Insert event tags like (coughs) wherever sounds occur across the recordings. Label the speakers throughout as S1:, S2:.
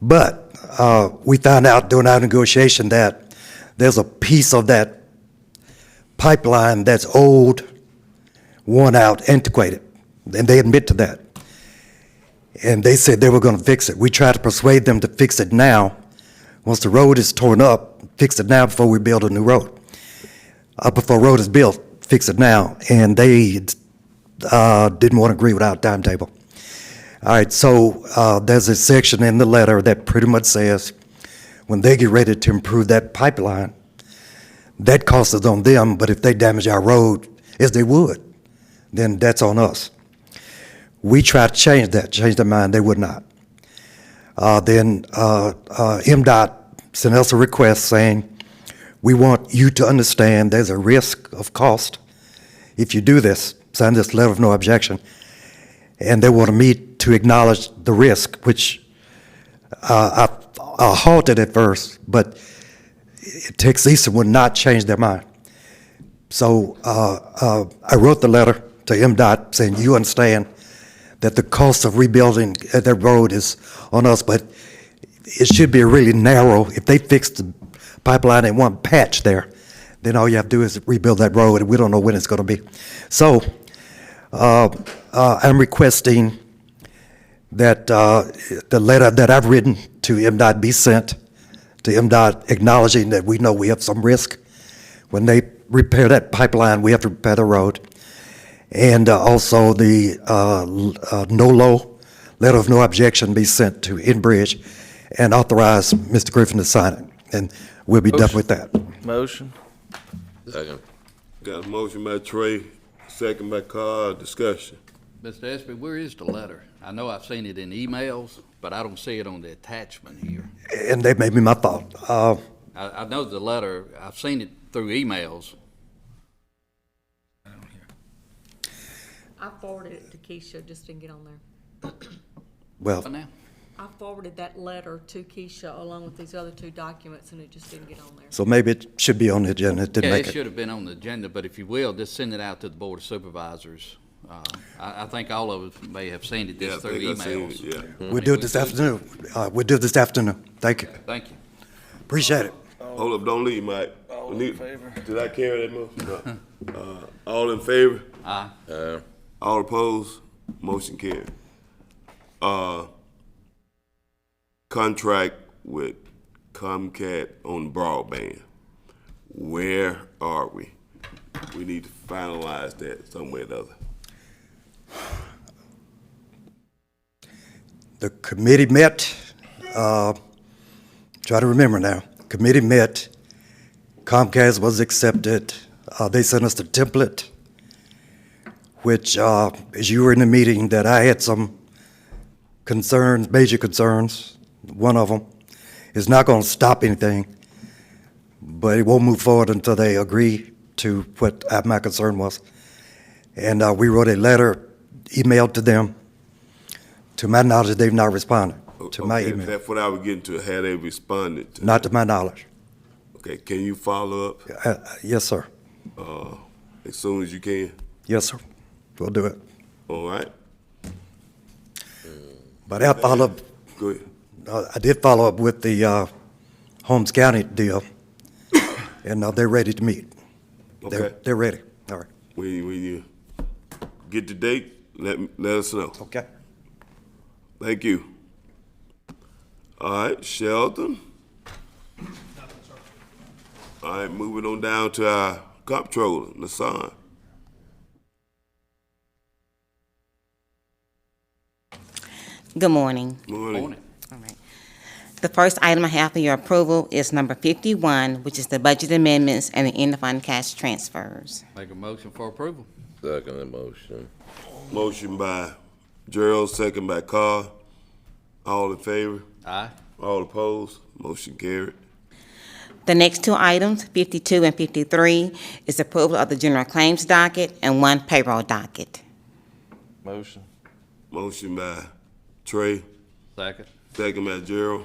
S1: But uh, we found out during our negotiation that there's a piece of that pipeline that's old, worn out, antiquated, and they admit to that. And they said they were going to fix it. We tried to persuade them to fix it now. Once the road is torn up, fix it now before we build a new road. Uh, before road is built, fix it now. And they uh, didn't want to agree with our timetable. All right, so uh, there's a section in the letter that pretty much says, when they get ready to improve that pipeline, that cost is on them, but if they damage our road, as they would, then that's on us. We tried to change that, change their mind, they would not. Uh, Then uh, uh, MDOT sent us a request saying, we want you to understand there's a risk of cost if you do this, sign this letter of no objection and they wanted me to acknowledge the risk, which uh, I I halted at first, but Tex Eason would not change their mind. So uh, uh, I wrote the letter to MDOT saying, you understand that the cost of rebuilding uh, that road is on us, but it should be really narrow. If they fix the pipeline in one patch there, then all you have to do is rebuild that road, and we don't know when it's going to be. So uh, I'm requesting that uh, the letter that I've written to MDOT be sent to MDOT acknowledging that we know we have some risk. When they repair that pipeline, we have to repair the road. And uh, also the uh, l- uh, NOLO, letter of no objection, be sent to Enbridge and authorize Mr. Griffin to sign it. And we'll be done with that.
S2: Motion.
S3: Second.
S4: Got a motion by Trey, second by Carl, discussion.
S5: Mr. Espy, where is the letter? I know I've seen it in emails, but I don't see it on the attachment here.
S1: And that may be my fault. Uh,
S5: I, I know the letter, I've seen it through emails.
S6: I forwarded it to Keisha, just didn't get on there.
S1: Well,
S5: But now,
S6: I forwarded that letter to Keisha along with these other two documents, and it just didn't get on there.
S1: so maybe it should be on the agenda. It didn't
S5: yeah,
S1: make
S5: it
S1: it.
S5: should have been on the agenda, but if you will, just send it out to the Board of Supervisors. Uh, I, I think all of us may have seen it
S4: Yeah, I
S5: just through
S4: think I seen it,
S5: emails.
S4: Yeah.
S1: We'll do it this afternoon. Uh, We'll do it this afternoon. Thank you.
S5: Thank you.
S1: Appreciate it.
S4: Hold up, don't leave, Mike.
S2: All
S4: We
S2: in
S4: need-
S2: favor?
S4: Did I carry that motion? No. Uh, All in favor?
S3: Uh,
S4: All opposed? Motion carried. Uh, contract with Comcast on broadband. Where are we? We need to finalize that somewhere or the other.
S1: The committee met, uh, try to remember now, committee met, Comcast was accepted, Uh, they sent us the template, which, uh, as you were in the meeting, that I had some concerns, major concerns, one of them, is not going to stop anything, but it won't move forward until they agree to what uh, my concern was. And uh, we wrote a letter, emailed to them, to my knowledge, they've not responded to my
S4: Okay,
S1: email.
S4: That's what I was getting to, had they responded to.
S1: Not to my knowledge.
S4: Okay, can you follow up
S1: Uh, uh, Yes, sir.
S4: as soon as you can?
S1: Yes, sir. We'll do it.
S4: All right,
S1: But I follow,
S4: go ahead.
S1: uh, I did follow up with the uh, Holmes County deal, (coughs) and uh, they're ready to meet. They're-
S4: Okay,
S1: They're ready. All right.
S4: when you, when you get the date, let, me- let us know.
S1: Okay.
S4: Thank you. All right, Sheldon. All right, moving on down to our comptroller, Nassan.
S7: Good morning.
S4: Morning.
S5: Morning.
S7: All right. The first item I have for your approval is number 51, which is the budget amendments and the end of fund cash transfers.
S5: Make a motion for approval.
S3: second the motion.
S4: Motion by Gerald, second by Carl. All in favor?
S5: Aye.
S4: All opposed? Motion carried.
S7: The next two items, 52 and 53, is approval of the general claims docket and one payroll docket.
S2: Motion.
S4: Motion by Trey,
S5: Second.
S4: second by Gerald.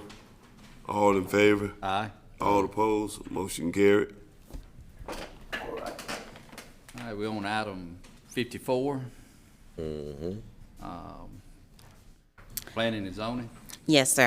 S4: All in favor?
S5: Aye.
S4: All opposed? Motion carried.
S5: All right, we're on item fifty-four.
S4: Mm-hmm.
S5: Um, Planning and zoning.
S7: Yes, sir.